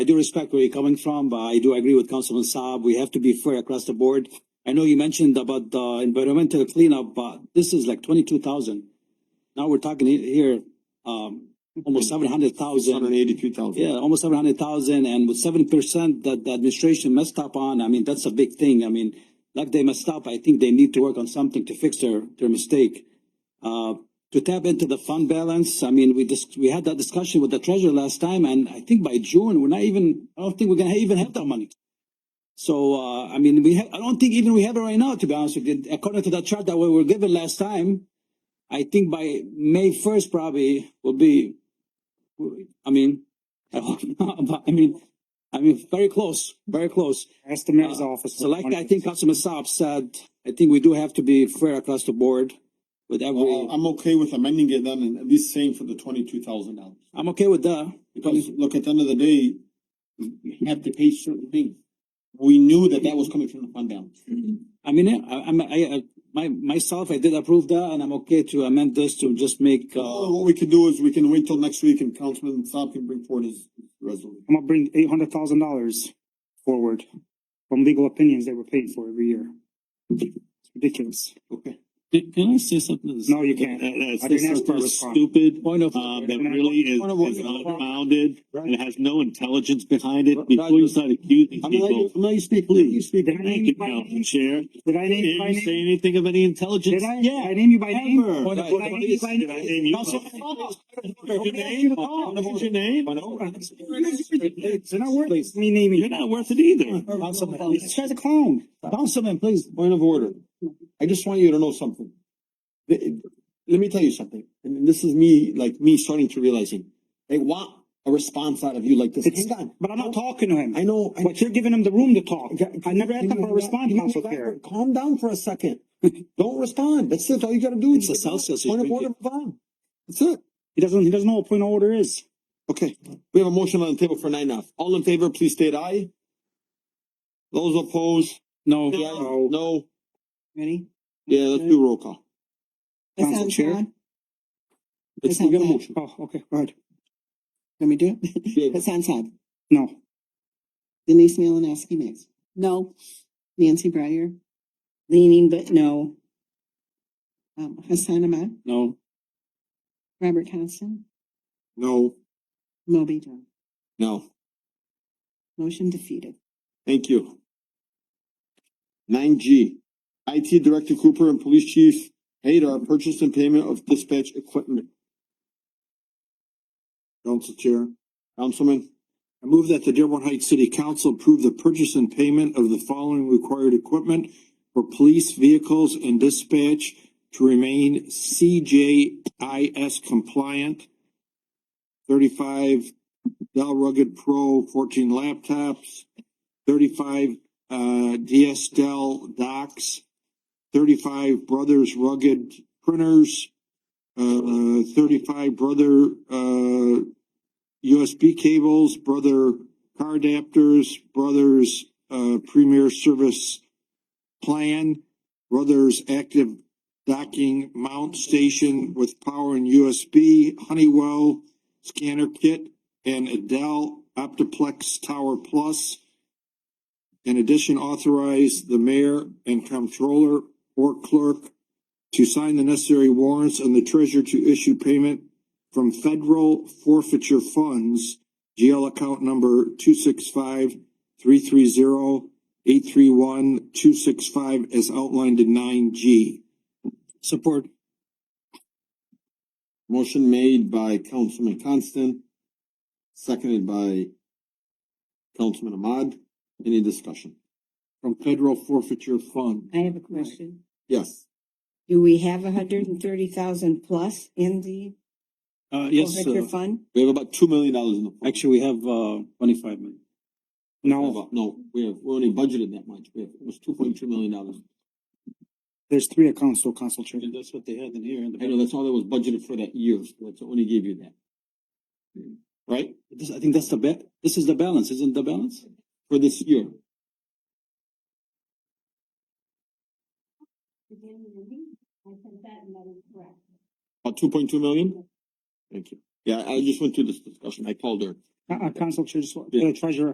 I do respect where you're coming from, but I do agree with Councilman Saab. We have to be fair across the board. I know you mentioned about the environmental cleanup, but this is like twenty-two thousand. Now we're talking he- here, um, almost seven hundred thousand. eighty-three thousand. Yeah, almost seven hundred thousand and with seven percent that the administration messed up on, I mean, that's a big thing. I mean, like they messed up, I think they need to work on something to fix their, their mistake. Uh, to tap into the fund balance, I mean, we just, we had that discussion with the treasurer last time and I think by June, we're not even, I don't think we're gonna even have that money. So, uh, I mean, we ha- I don't think even we have it right now, to be honest with you. According to the chart that we were given last time, I think by May first probably will be, I mean, I hope not, but I mean, I mean, very close, very close. Ask the mayor's office. So like I think Councilman Saab said, I think we do have to be fair across the board with Oh, every, I'm okay with amending it then and at least saying for the twenty-two thousand dollars. I'm okay with that. Because look, at the end of the day, we have to pay certain things. We knew that that was coming from the fund balance. I mean, I, I'm, I, I, my, myself, I did approve that and I'm okay to amend this to just make, uh, Oh, Uh, what we can do is we can wait till next week and Councilman Saab can bring forward his resolution. I'm gonna bring eight hundred thousand dollars forward from legal opinions that we're paid for every year. It's ridiculous. Okay. Can, can I say something? that's- No, you can't. that- that's- I didn't that's ask for a just response. Stupid, point of. um, that really is, Point of order. is unfounded and has no intelligence behind it. Right. Before you start accusing I'm letting you, people. I'm letting you speak, Did you please. speak- did I name Thank you you, by Council name? Chair. Did I Did name you by you say name? anything of any intelligence? Did I, did Yeah. I name you by name? Ever. Point of Did oh, I name you by Did I name name? you? Councilman Saab. Your name? What's your name? It's not worth it. me You're naming. not worth it either. Councilman, This guy's a clown. Councilman, please. Point of order. I just want you to know something. The- let me tell you something, and this is me, like me starting to realizing, they want a response out of you like this. It's- Hang on. But I'm not talking to him. I know. I- But you're giving him the room to talk. Okay, I never asked him for a response, you know, Council that- Chair. Calm down for a second. Don't respond. That's it. All you gotta do. It's a Celsius Point of drink order, move on. That's it. He doesn't, he doesn't know what point of order is. Okay, we have a motion on the table for nine F. All in favor, please state aye. Those opposed? No, The ayes- No. Ready? Yeah, let's do roll call. That Council sounds Chair? bad. Let's, we got a motion. Oh, okay, go ahead. Let me do it. Yeah, That sounds bad. No. Denise Malinowski makes. No. Nancy Breyer. Leaning but no. Um, Hassan Ahmad, no, Robert Constant, No, Moby Jones. no. Motion defeated. Thank you. Nine G, IT Director Cooper and Police Chief Hadar purchase and payment of dispatch equipment. Council Chair. Councilman. I move that the Dearborn Heights City Council approve the purchase and payment of the following required equipment for police vehicles and dispatch to remain CJIS compliant. Thirty-five Dell Rugged Pro fourteen laptops, thirty-five uh DS Dell docks, thirty-five Brothers Rugged printers, uh thirty-five Brother uh USB cables, brother car adapters, brothers uh premier service plan, brothers active docking mount station with power and USB, Honeywell scanner kit, and Adele Optiplex Tower Plus. In addition, authorize the mayor and comptroller or clerk to sign the necessary warrants and the treasurer to issue payment from federal forfeiture funds, GL account number two six five three three zero eight three one two six five as outlined in nine G. support. Uh, Motion made by Councilman Constant, seconded by Councilman Ahmad. Any discussion? From federal forfeiture fund. I have a question. Yes. Do we have a hundred and thirty thousand plus in the Oh, Uh, yes, forfeiture uh, fund? We have about two million dollars in the. fund. actually, we have, uh, twenty-five minutes. No, About- No, we have, we only budgeted that much. We have, it was two point two million dollars. there's three accounts to Council Chair. That's what they had in here in I know that's all that was budgeted for that year. so That's only gave you that. Right? This, I think that's the ba- this is the balance, isn't the balance? For this year. About two point two million? Thank you. Yeah, I just went through this discussion. I called her. Uh, uh, Council Chair, just, the treasurer